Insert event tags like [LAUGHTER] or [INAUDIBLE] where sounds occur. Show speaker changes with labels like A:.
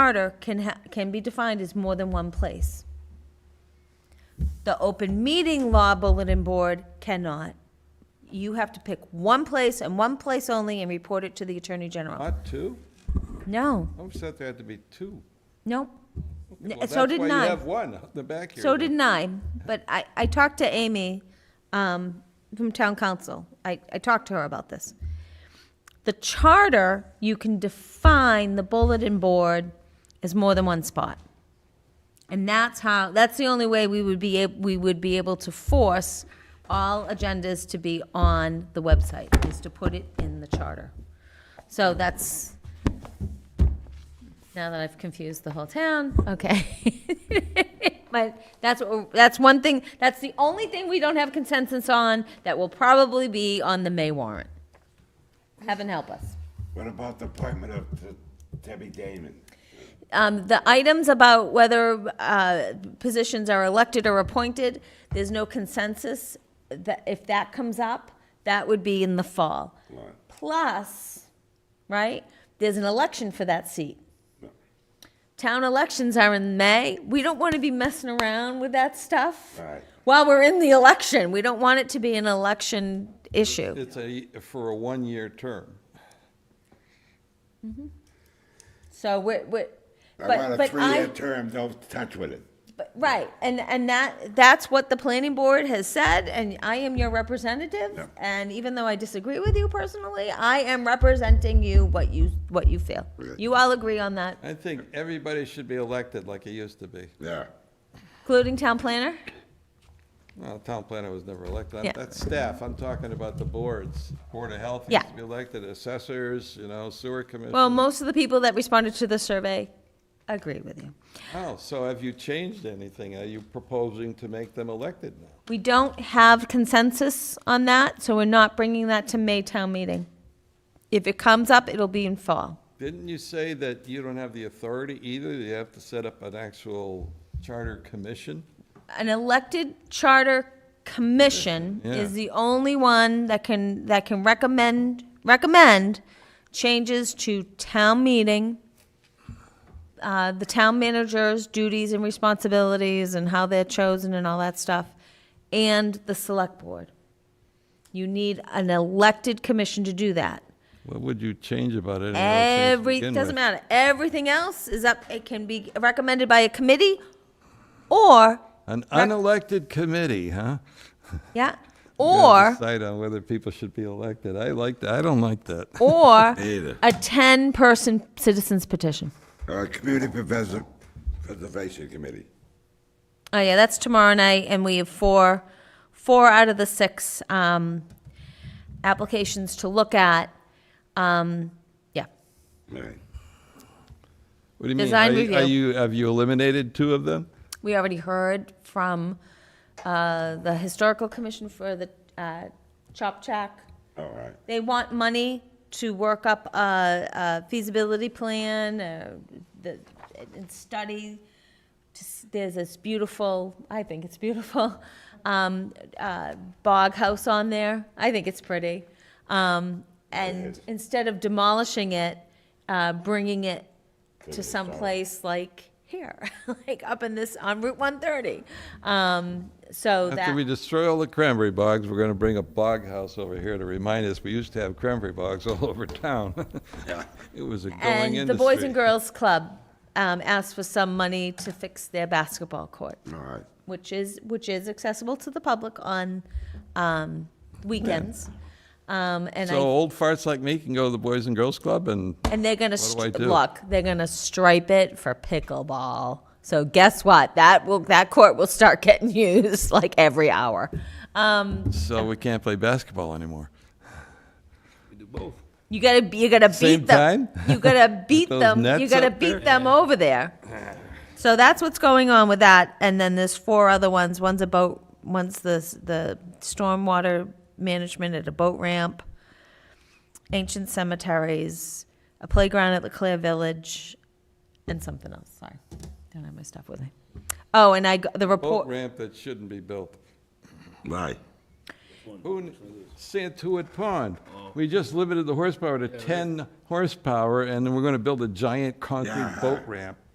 A: charter can ha, can be defined as more than one place. The open meeting law bulletin board cannot. You have to pick one place and one place only and report it to the attorney general.
B: Not two?
A: No,
B: I'm set there had to be two.
A: nope. N-
B: Well,
A: So did
B: That's why you have
A: nine.
B: one out the back here.
A: So did nine. But I, I talked to Amy, um, from town council. I, I talked to her about this. The charter, you can define the bulletin board as more than one spot. And that's how, that's the only way we would be, ab- we would be able to force all agendas to be on the website, is to put it in the charter. So that's, now that I've confused the whole town, okay. [LAUGHS] But that's, what we're- that's one thing, that's the only thing we don't have consensus on that will probably be on the May warrant. Heaven help us.
C: What about the appointment of the Debbie Damon?
A: Um, the items about whether, uh, positions are elected or appointed, there's no consensus. That, if that comes up, that would be in the fall.
C: Right.
A: Plus, right, there's an election for that seat.
C: No.
A: Town elections are in May. We don't want to be messing around with that stuff.
C: Right.
A: While we're in the election, we don't want it to be an election issue.
B: It's a, for a one-year term.
A: So we're, we're,
C: I
A: but,
C: want a
A: but
C: three-year
A: I,
C: term, don't touch with it.
A: but- right, and, and that, that's what the planning board has said, and I am your representative.
C: Yeah.
A: And even though I disagree with you personally, I am representing you, what you, what you feel.
C: Okay.
A: You all agree on that,
B: I think everybody should be elected like it used to be.
C: Yeah.
A: including town planner?
B: Well, town planner was never elected.
A: Yeah.
B: I'm- That's staff. I'm talking about the boards. Board of Health
A: Yeah.
B: used to be elected, assessors, you know, sewer commission.
A: Well, most of the people that responded to the survey agree with you.
B: Oh, so have you changed anything? Are you proposing to make them elected now?
A: We don't have consensus on that, so we're not bringing that to May town meeting. If it comes up, it'll be in fall.
B: Didn't you say that you don't have the authority either? You have to set up an actual charter commission?
A: An elected charter commission
B: Yeah.
A: is the only one that can, that can recommend, recommend changes to town meeting, uh, the town manager's duties and responsibilities and how they're chosen and all that stuff, and the select board. You need an elected commission to do that.
B: What would you change about it?
A: Every, doesn't matter. Everything else is up, it can be recommended by a committee or,
B: An unelected committee, huh?
A: yeah,
B: Gotta
A: or,
B: Decide on whether people should be elected. I like that. I don't like that.
A: or
C: Either.
A: a ten-person citizens petition.
C: Uh, Community Preserv- Preservation Committee.
A: Oh, yeah, that's tomorrow night, and we have four, four out of the six, um, applications to look at. Um, yeah,
C: Right.
B: What do you mean?
A: Design
B: Are you- Are
A: review.
B: you, have you eliminated two of them?
A: we already heard from, uh, the historical commission for the, uh, Chop Chack.
C: All right.
A: They want money to work up a, a feasibility plan, uh, the, and study. to s- There's this beautiful, I think it's beautiful, [LAUGHS] um, uh, bog house on there. I think it's pretty. Um, and
C: is.
A: instead of demolishing it, uh, bringing it to some place like here, [LAUGHS] like up in this, on Route one thirty. Um, so that.
B: After we destroy all the cranberry bogs, we're gonna bring a bog house over here to remind us, we used to have cranberry bogs all over town. [LAUGHS] It was a going industry.
A: And the Boys and Girls Club um, asked for some money to fix their basketball court,
C: All right.
A: which is, which is accessible to the public on um, weekends. Um, And
B: So
A: I,
B: old farts like me can go to the Boys and Girls Club and
A: and they're gonna,
B: What do I
A: stri-
B: do?
A: look, they're gonna stripe it for pickleball. So guess what? That will, that court will start getting [LAUGHS] used like every hour. Um,
B: so we can't play basketball anymore.
A: You gotta, be- you gotta
B: Same
A: beat them.
B: time?
A: You
B: [LAUGHS]
A: gotta beat
B: those
A: them, you
B: nets
A: gotta
B: up there?
A: beat them over there. So that's what's going on with that, and then there's four other ones, one's a boat, one's the, s- the stormwater management at a boat ramp, ancient cemeteries, a playground at Leclerc Village, and something else, sorry. Don't have my stuff with me. Oh, and I, g- the
B: Boat
A: report,
B: ramp that shouldn't be built.
C: Right.
B: Who, kn- Santuit Pond. We just limited the horsepower to 10 horsepower, and then we're going to build a giant concrete
C: Yeah.
B: boat ramp